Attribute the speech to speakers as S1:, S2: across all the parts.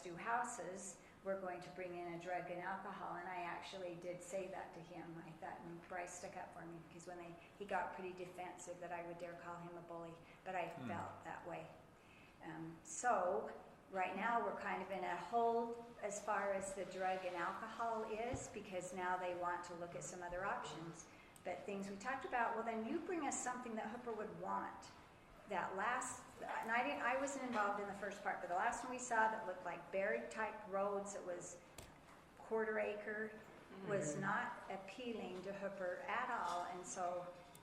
S1: do houses, we're going to bring in a drug and alcohol, and I actually did say that to him. I thought, and Bryce stuck up for me, because when I, he got pretty defensive that I would dare call him a bully, but I
S2: Hmm.
S1: felt that way. Um, so, right now, we're kind of in a hold as far as the drug and alcohol is, because now they want to look at some other options. But things we talked about, well, then you bring us something that Hooper would want that last, and I didn't, I wasn't involved in the first part, but the last one we saw that looked like buried type roads, it was quarter acre,
S3: Mm-hmm.
S1: was not appealing to Hooper at all, and so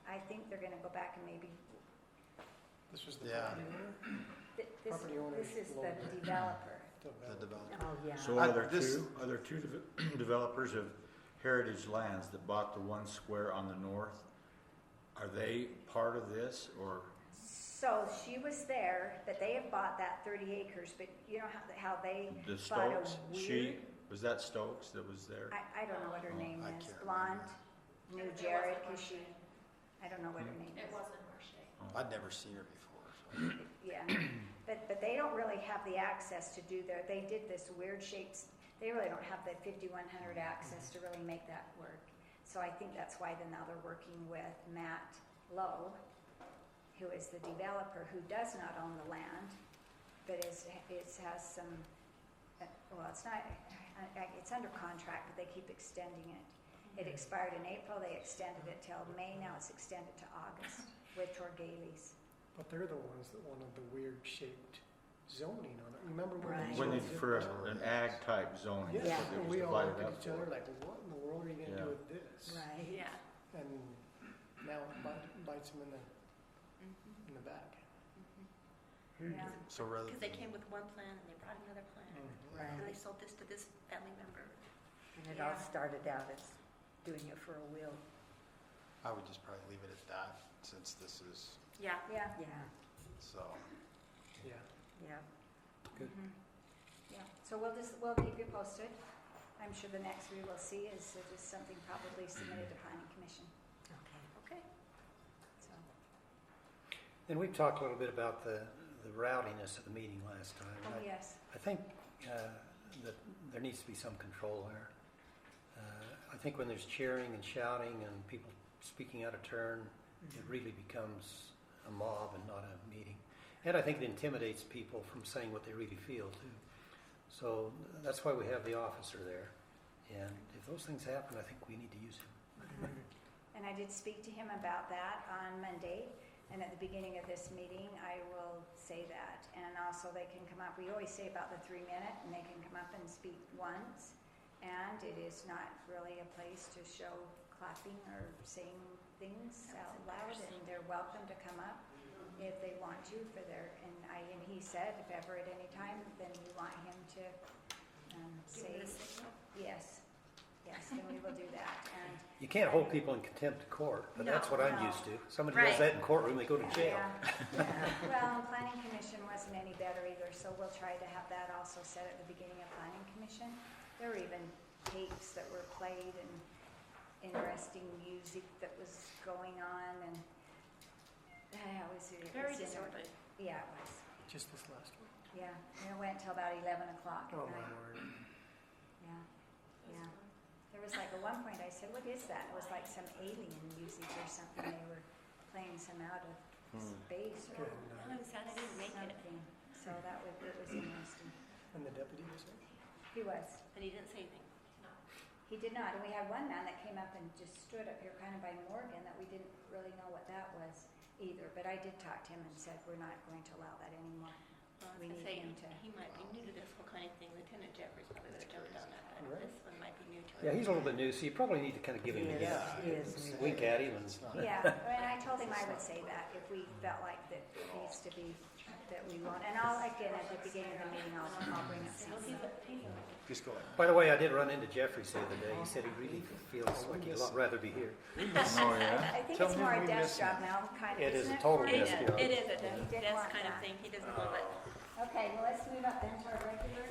S1: I think they're gonna go back and maybe,
S3: This was the
S4: Yeah.
S3: property owner?
S1: th- this,
S3: Property owner
S1: this is the
S3: lawyer.
S1: developer.
S4: the developer.
S5: Oh, yeah.
S2: So
S4: I-
S2: are there
S4: this-
S2: two, are there two deve- developers of Heritage Lands that bought the one square on the north? Are they part of this or,
S1: So she was there, but they have bought that thirty acres, but you know how, how they
S2: the
S1: bought a
S2: Stokes? She,
S1: weird,
S2: was that Stokes that was there?
S1: I, I don't know what her
S2: Oh,
S1: name
S4: I
S1: is,
S4: can't remember.
S1: blonde,
S6: It
S1: knew
S6: wasn't
S1: Jared, cause she,
S6: Marche.
S1: I don't know what her
S2: Hmm.
S1: name is.
S6: It wasn't Marche.
S4: I'd never seen her before. so.
S1: Yeah, but, but they don't really have the access to do their, they did this weird shapes, they really don't have the fifty-one hundred access to really make that work. So I think that's why then now they're working with Matt Lowe, who is the developer, who does not own the land, but is, it has some, uh, well, it's not, I- I- it's under contract, but they keep extending it. It expired in April, they extended it till May, now it's extended to August with Torgales.
S3: But they're the ones that wanted the weird shaped zoning on it. Remember when?
S1: Right.
S3: these
S2: When they,
S3: ones did
S2: for
S3: that?
S2: an ag type zoning,
S3: Yeah,
S2: that's
S5: Yeah.
S2: what it
S3: and
S2: was
S3: we all
S2: divided
S3: looked at
S2: up
S3: each other
S2: for.
S3: like, what in the world are you gonna
S2: Yeah.
S3: do with this?
S5: Right.
S6: Yeah.
S3: And now it bite- bites them in the, in the back. Hmm.
S1: Mm-hmm. Yeah.
S4: So rather
S7: Because they
S4: than-
S7: came with one plan and they brought another plan.
S8: Mm.
S3: Mm-hmm.
S5: Right.
S7: And they sold this to this family member.
S5: And it all
S6: Yeah.
S5: started out as doing it for a will.
S4: I would just probably leave it at that since this is,
S7: Yeah.
S1: Yeah.
S5: Yeah,
S4: so.
S3: Yeah.
S5: yeah.
S1: Mhm. Yeah, so we'll just, we'll keep you posted. I'm sure the next we will see is uh, just something probably submitted to planning commission,
S5: Okay.
S7: Okay.
S1: so.
S8: And we talked a little bit about the, the rowdiness of the meeting last time.
S1: Oh,
S8: I-
S1: yes,
S8: I think uh, that there needs to be some control there. Uh, I think when there's cheering and shouting and people speaking out of turn, it
S3: Mm-hmm.
S8: really becomes a mob and not a meeting. And I think it intimidates people from saying what they really feel too. So that's why we have the officer there. And if those things happen, I think we need to use him.
S1: and I did speak to him about that on Monday, and at the beginning of this meeting, I will say that. And also, they can come up, we always say about the three minute, and they can come up and speak once. And it is not really a place to show clapping or saying things out loud, and they're welcome to come up. if they want you for their, and I, and he said, if ever at any time, then we want him to, um,
S7: Give
S1: say,
S7: it a signal.
S1: yes, yes, then we will do that, and,
S8: You can't hold people in contempt of court, but that's
S7: No,
S8: what I'm
S1: no.
S8: used to. Somebody
S7: Right.
S8: does that in courtroom, they go to jail.
S1: yeah. yeah. Well, and planning commission wasn't any better either, so we'll try to have that also set at the beginning of planning commission. There were even tapes that were played and interesting music that was going on, and I always, it was
S7: Very
S1: inter-
S7: disorderly.
S1: Yeah, it was,
S3: Just this last one.
S1: yeah, and it went till about eleven o'clock at
S3: Oh,
S1: night.
S3: my word.
S1: Yeah, yeah. There was like at one point I said, "What is that?" It was like some alien music or something. They were playing some out of
S8: Hmm.
S1: space or
S3: Good night.
S7: I'm sad I didn't make it.
S1: something. So that was it was interesting.
S3: uh, And the deputy was there?
S1: He was.
S7: And he didn't say anything.
S1: He did not. And we had one man that came up and just stood up here, kind of by Morgan, that we didn't really know what that was either. But I did talk to him and said, "We're not going to allow that anymore."
S7: Well, I
S1: We
S7: was
S1: need
S7: gonna say,
S1: him to-
S7: he might be new to this whole kind of thing. Lieutenant Jeffries probably would have jumped on that, but
S3: Right.
S7: this one might be new to
S8: Yeah,
S7: him.
S8: he's a little bit new, so you probably need to kind of give him a
S5: Yes.
S8: little
S4: Yeah, I
S5: he
S4: would
S5: is
S4: say
S8: wink at him and-
S4: it's not-
S1: Yeah, and I told him I would say that if we felt like that it needs to be, that we want, and I'll, again, at the beginning of the meeting, I'll, I'll bring up something.
S4: Just go ahead.
S8: By the way, I did run into Jeffries the other day. He said he really feels like he'd a lot rather be here.
S2: Oh, yeah?
S1: I think
S8: Tell
S1: it's
S8: him
S1: more a
S8: we
S1: desk
S8: miss him.
S1: job now, kind of,
S8: It is
S1: isn't
S8: a
S1: it?
S8: total
S1: Cory?
S7: It is,
S8: desk job.
S7: it is a
S1: He did
S7: desk
S1: want
S7: kind of
S1: that.
S7: thing. He doesn't love it.
S1: Okay, well, let's move up then to our regular
S7: oh,